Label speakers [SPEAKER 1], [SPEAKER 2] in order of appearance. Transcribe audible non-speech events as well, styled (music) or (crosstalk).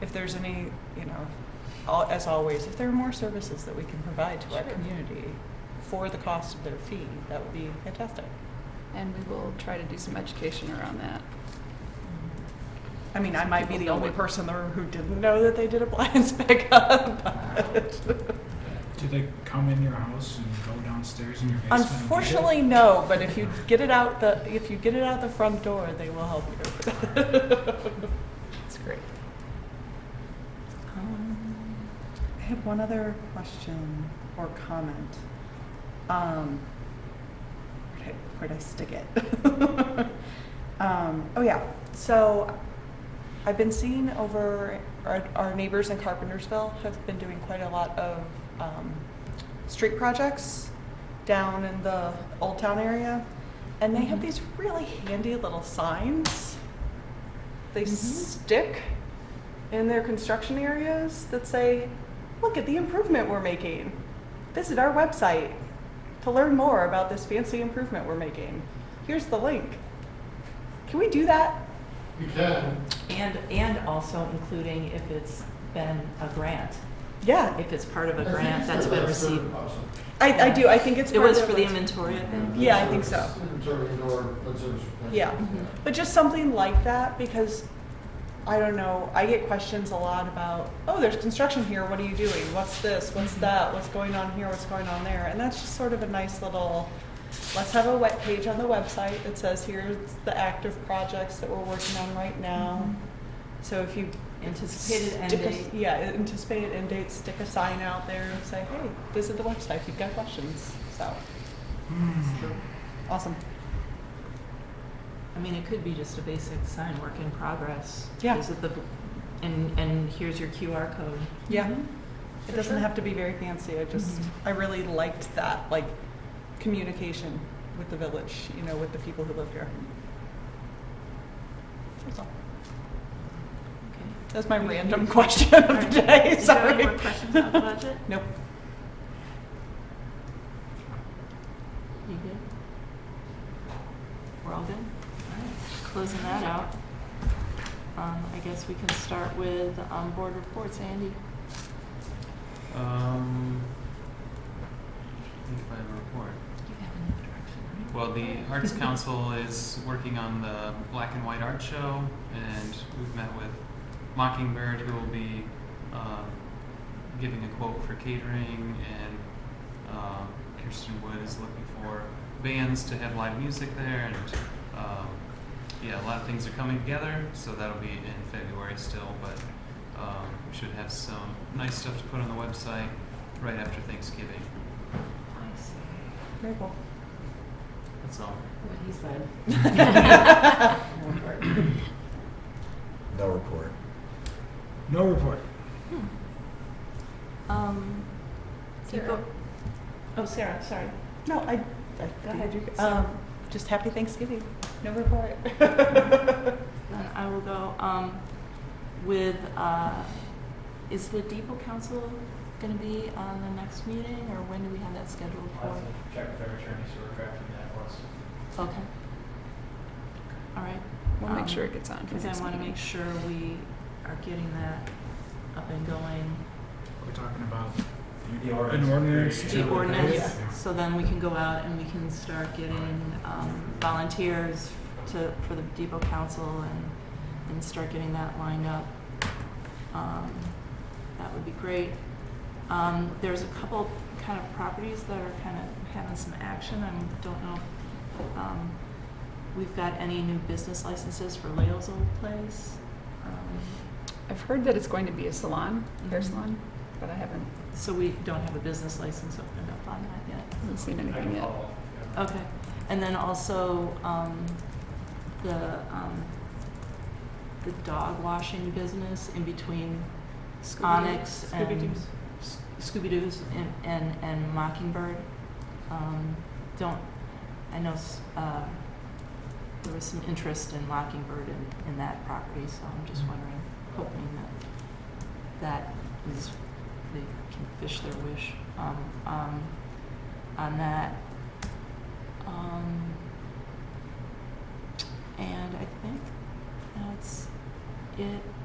[SPEAKER 1] if there's any, you know, al- as always, if there are more services that we can provide to our
[SPEAKER 2] Sure.
[SPEAKER 1] community for the cost of their fee, that would be fantastic.
[SPEAKER 2] And we will try to do some education around that.
[SPEAKER 1] I mean, I might be the
[SPEAKER 2] People know
[SPEAKER 1] only
[SPEAKER 2] what-
[SPEAKER 1] person in the room who didn't know that they did a (laughs) blinds pickup. but-
[SPEAKER 3] Do they come in your house and go downstairs in your basement? and do it?
[SPEAKER 1] Unfortunately, no, but if you get it out the, if you get it out the front door, they will help you.
[SPEAKER 2] It's great.
[SPEAKER 4] Um, I have one other question or comment. Um, where'd I, where'd I stick
[SPEAKER 1] (laughs)
[SPEAKER 4] it? um, oh yeah.
[SPEAKER 1] So I've been seeing over, our, our neighbors in Carpentersville have been doing quite a lot of um, street projects down in the Old Town area. And they have
[SPEAKER 2] Mhm.
[SPEAKER 1] these really handy little signs. They
[SPEAKER 2] Mhm.
[SPEAKER 1] stick in their construction areas that say, look at the improvement we're making. Visit our website to learn more about this fancy improvement we're making. Here's the link. Can we do that?
[SPEAKER 5] You can.
[SPEAKER 6] And, and also including if it's been a grant,
[SPEAKER 1] Yeah,
[SPEAKER 6] if it's part of
[SPEAKER 5] I
[SPEAKER 6] a
[SPEAKER 5] think
[SPEAKER 6] grant
[SPEAKER 5] it's
[SPEAKER 6] that's
[SPEAKER 5] the
[SPEAKER 6] been
[SPEAKER 5] last
[SPEAKER 6] received.
[SPEAKER 5] third option.
[SPEAKER 1] I, I do. I think it's
[SPEAKER 6] It was
[SPEAKER 1] part
[SPEAKER 6] for
[SPEAKER 1] of
[SPEAKER 6] the
[SPEAKER 1] it.
[SPEAKER 6] inventory, I think.
[SPEAKER 1] Yeah, I think so.
[SPEAKER 5] Inventory or reserves.
[SPEAKER 1] Yeah. But just something like that because I don't know. I get questions a lot about, oh, there's construction here. What are you doing? What's this? What's
[SPEAKER 6] Mm-hmm.
[SPEAKER 1] that? What's going on here? What's going on there? And that's just sort of a nice little. Let's have a web page on the website that says here's the active projects that we're working on right now. So if you
[SPEAKER 6] Mm-hmm. Anticipated end
[SPEAKER 1] stick a-
[SPEAKER 6] date.
[SPEAKER 1] yeah, anticipated end date. Stick a sign out there and say, hey, visit the website if you've got questions. So
[SPEAKER 3] Hmm.
[SPEAKER 1] awesome.
[SPEAKER 6] I mean, it could be just a basic sign, work in progress.
[SPEAKER 1] Mm-hmm. Yeah.
[SPEAKER 6] Is it the, and, and here's your QR code.
[SPEAKER 1] (laughs) Yeah. It
[SPEAKER 6] For
[SPEAKER 1] doesn't
[SPEAKER 6] sure.
[SPEAKER 1] have to be very fancy. I just,
[SPEAKER 6] Mhm.
[SPEAKER 1] I really liked that, like communication with the village, you know, with the people who live here. That's all.
[SPEAKER 6] Okay.
[SPEAKER 1] That's my random (laughs) question of the day.
[SPEAKER 6] Is there any
[SPEAKER 1] Sorry.
[SPEAKER 6] more questions on the budget?
[SPEAKER 1] (laughs) Nope.
[SPEAKER 6] You good? We're all good? All right, closing that out. Um, I guess we can start with, um, board reports. Andy?
[SPEAKER 7] Um, I think if I have a report.
[SPEAKER 6] You have another direction, right?
[SPEAKER 7] Well, the Arts Council is working on the Black and White Art Show, and we've met with Mockingbird, who will be uh, giving a quote for catering, and um, Kirsten Wood is looking for bands to have live music there, and um, yeah, a lot of things are coming together, so that'll be in February still, but um, we should have some nice stuff to put on the website right after Thanksgiving.
[SPEAKER 6] Nice.
[SPEAKER 1] Very cool.
[SPEAKER 7] That's all.
[SPEAKER 6] What he said.
[SPEAKER 8] No report.
[SPEAKER 3] No report.
[SPEAKER 6] Um, you
[SPEAKER 2] Sarah.
[SPEAKER 6] go- Oh, Sarah, sorry.
[SPEAKER 1] No, I, I,
[SPEAKER 6] Go ahead.
[SPEAKER 1] you-
[SPEAKER 2] Uh,
[SPEAKER 1] Um, just happy Thanksgiving. No report.
[SPEAKER 6] Then Uh, I will go um, with, uh, is the depot council going to be on the next meeting, or when do we have that scheduled for?
[SPEAKER 9] check with our attorney, so we're crafting that once.
[SPEAKER 6] Okay. All right,
[SPEAKER 2] We'll make
[SPEAKER 6] Um,
[SPEAKER 2] sure it gets on. for
[SPEAKER 6] because
[SPEAKER 2] next
[SPEAKER 6] I want to
[SPEAKER 2] meeting.
[SPEAKER 6] make sure we are getting that up and going.
[SPEAKER 3] We're talking about
[SPEAKER 9] The
[SPEAKER 3] an ordinance.
[SPEAKER 6] The
[SPEAKER 3] to-
[SPEAKER 6] ordinance,
[SPEAKER 3] Yeah.
[SPEAKER 6] so then we can go out and we can start getting um, volunteers to, for the depot council and, and start getting that lined up. Um, That would be great. Um, There's a couple kind of properties that are kind of having some action, I don't know. if, um, We've got any new business licenses for Leo's Old Place? Um,
[SPEAKER 2] I've heard that it's going to be a salon, hair
[SPEAKER 6] Mhm.
[SPEAKER 2] salon, but I haven't,
[SPEAKER 6] So we don't have a business license opened up on that yet.
[SPEAKER 2] haven't seen
[SPEAKER 9] I
[SPEAKER 2] anything
[SPEAKER 9] can
[SPEAKER 2] yet.
[SPEAKER 9] follow up, yeah.
[SPEAKER 6] Okay, and then also, um, the, um, the dog washing business in between Onyx and.
[SPEAKER 1] Scooby-Doo's.
[SPEAKER 6] S- Scooby-Doo's and, and, and Mockingbird. Um, don't, I know, s- uh, there was some interest in Mockingbird in, in that property, so I'm just wondering, hoping that, that is, they can fish their wish, um, um, on that. Um, and I think that's it